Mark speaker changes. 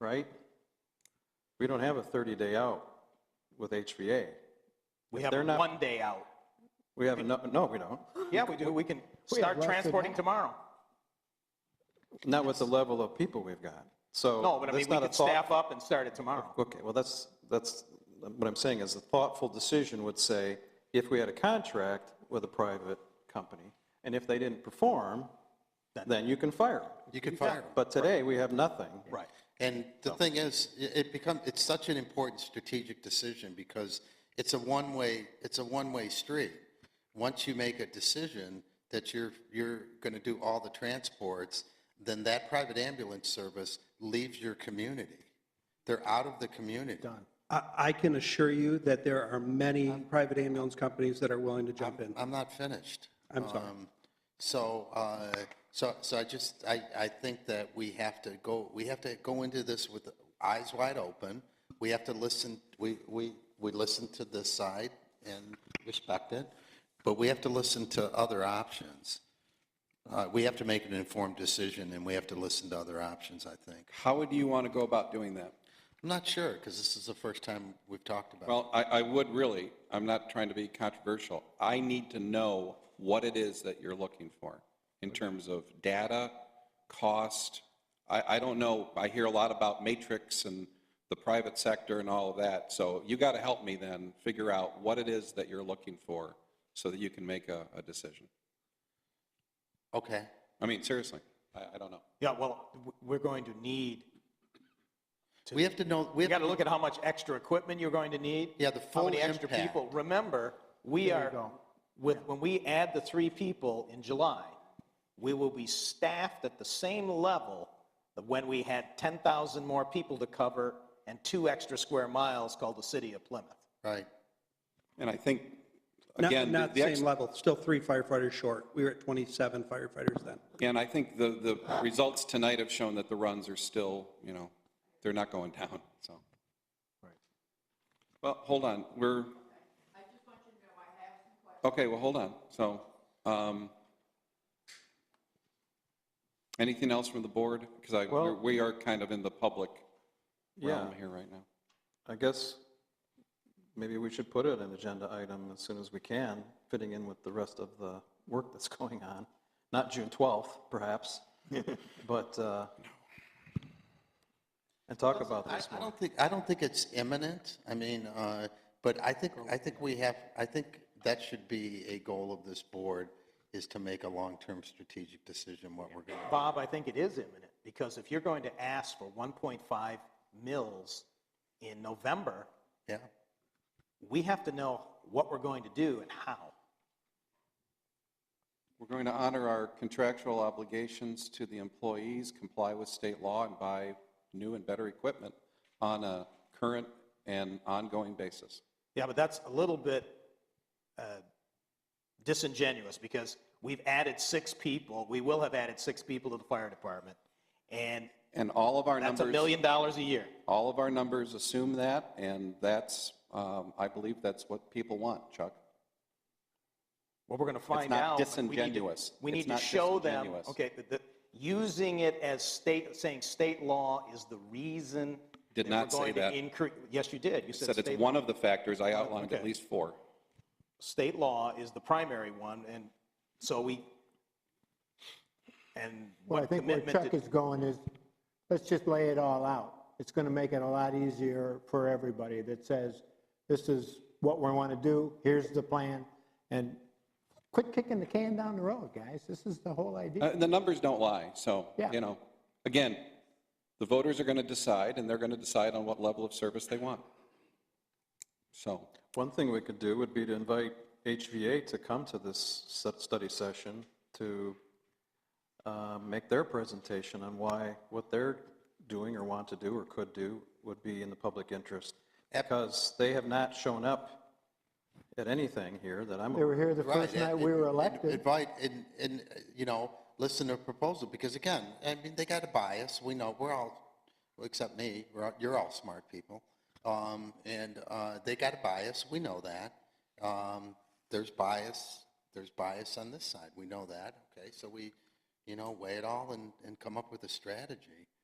Speaker 1: right? We don't have a 30-day out with HVA.
Speaker 2: We
Speaker 1: If
Speaker 2: have
Speaker 1: they're not-
Speaker 2: one day out.
Speaker 1: We have, no, no, we don't.
Speaker 2: Yeah, we do. We can start
Speaker 3: less than
Speaker 2: transporting
Speaker 3: that.
Speaker 2: tomorrow.
Speaker 1: Not with the level of people we've got. So.
Speaker 2: No, but I
Speaker 1: that's
Speaker 2: mean, we
Speaker 1: not a
Speaker 2: could
Speaker 1: thought-
Speaker 2: staff up and start it tomorrow.
Speaker 1: Okay, well, that's, that's, what I'm saying is a thoughtful decision would say, if we had a contract with a private company, and if they didn't perform, then you can fire them.
Speaker 4: You could fire them.
Speaker 1: But today, we have nothing.
Speaker 2: Right.
Speaker 4: And the thing is, i- it become, it's such an important strategic decision because it's a one-way, it's a one-way street. Once you make a decision that you're, you're going to do all the transports, then that private ambulance service leaves your community. They're out of the community. Done.
Speaker 3: I, I can assure you that there are many private ambulance companies that are willing to jump in.
Speaker 4: I'm not finished.
Speaker 3: I'm sorry.
Speaker 4: Um, So, uh, so, so I just, I, I think that we have to go, we have to go into this with eyes wide open. We have to listen, we, we, we listen to this side and respect it, but we have to listen to other options. Uh, We have to make an informed decision and we have to listen to other options, I think.
Speaker 5: How would you want to go about doing that?
Speaker 4: I'm not sure, because this is the first time we've talked about it.
Speaker 5: Well, I, I would really, I'm not trying to be controversial. I need to know what it is that you're looking for in terms of data, cost. I, I don't know, I hear a lot about matrix and the private sector and all of that. So you got to help me then figure out what it is that you're looking for so that you can make a, a decision.
Speaker 4: Okay,
Speaker 5: I mean, seriously, I, I don't know.
Speaker 2: Yeah, well, w- we're going to need,
Speaker 4: we have to know, we
Speaker 2: you
Speaker 4: have
Speaker 2: got to look at how much extra equipment you're going to need.
Speaker 4: Yeah, the
Speaker 2: How many
Speaker 4: full
Speaker 2: extra
Speaker 4: impact.
Speaker 2: people. Remember, we are, with, when we add the three people in July, we will be staffed at the same level of when we had 10,000 more people to cover and two extra square miles called the city of Plymouth.
Speaker 4: right.
Speaker 5: And I think,
Speaker 3: Not,
Speaker 5: again, the-
Speaker 3: not
Speaker 5: the ex-
Speaker 3: same level, still three firefighters short. We were at 27 firefighters then.
Speaker 5: And I think the, the results tonight have shown that the runs are still, you know, they're not going down, so. Well, hold on, we're. I just want you to know I have some questions. Okay, well, hold on, so, um, anything else from the board? Because I,
Speaker 1: Well-
Speaker 5: we're- we are kind of in the public
Speaker 1: Yeah,
Speaker 5: realm here right now.
Speaker 1: I guess maybe we should put it an agenda item as soon as we can, fitting in with the rest of the work that's going on. Not June 12th, perhaps, but, uh, and talk about
Speaker 4: I
Speaker 1: this
Speaker 4: I
Speaker 1: more.
Speaker 4: don't think, I don't think it's imminent, I mean, uh, but I think, I think we have, I think that should be a goal of this board, is to make a long-term strategic decision what we're going to.
Speaker 2: Bob, I think it is imminent, because if you're going to ask for 1.5 mils in November,
Speaker 4: Yeah,
Speaker 2: we have to know what we're going to do and how.
Speaker 5: We're going to honor our contractual obligations to the employees, comply with state law, and buy new and better equipment on a current and ongoing basis.
Speaker 2: Yeah, but that's a little bit uh, disingenuous because we've added six people, we will have added six people to the fire department. And
Speaker 5: And all of our
Speaker 2: that's a
Speaker 5: numbers,
Speaker 2: million dollars a year.
Speaker 5: all of our numbers assume that, and that's, um, I believe that's what people want, Chuck.
Speaker 2: Well, we're going to find
Speaker 5: not
Speaker 2: out. but we need to-
Speaker 5: disingenuous.
Speaker 2: We
Speaker 5: It's
Speaker 2: need to
Speaker 5: not
Speaker 2: show them,
Speaker 5: disingenuous.
Speaker 2: okay, that- that using it as state, saying state law is the reason.
Speaker 5: Did
Speaker 2: that
Speaker 5: not
Speaker 2: we're
Speaker 5: say
Speaker 2: going to
Speaker 5: that.
Speaker 2: incre- Yes, you did. You said
Speaker 5: Said it's
Speaker 2: state,
Speaker 5: one of the factors, I outlined at
Speaker 2: Okay.
Speaker 5: least four.
Speaker 2: state law is the primary one, and so we, and
Speaker 6: Well, I
Speaker 2: what
Speaker 6: think where
Speaker 2: commitment
Speaker 6: Chuck
Speaker 2: did,
Speaker 6: is going is, let's just lay it all out. It's going to make it a lot easier for everybody that says, this is what we want to do, here's the plan, and quit kicking the can down the road, guys. This is the whole
Speaker 5: Uh,
Speaker 6: idea.
Speaker 5: The numbers don't lie, so,
Speaker 6: Yeah.
Speaker 5: you know, again, the voters are going to decide, and they're going to decide on what level of service they want. So.
Speaker 1: One thing we could do would be to invite HVA to come to this stu- study session to uh, make their presentation on why what they're doing or want to do or could do would be in the public interest. Because they have not shown up at anything here that I'm
Speaker 6: They were
Speaker 1: aware
Speaker 6: here the
Speaker 4: right.
Speaker 6: first night we were elected.
Speaker 4: Invite, and, and, uh, you know, listen to a proposal, because again, I mean, they got a bias, we know, we're all, well, except me, we're, all- you're all smart people. Um, and, uh, they got a bias, we know that. Um, there's bias, there's bias on this side, we know that, okay? So we, you know, weigh it all and, and come up with a strategy.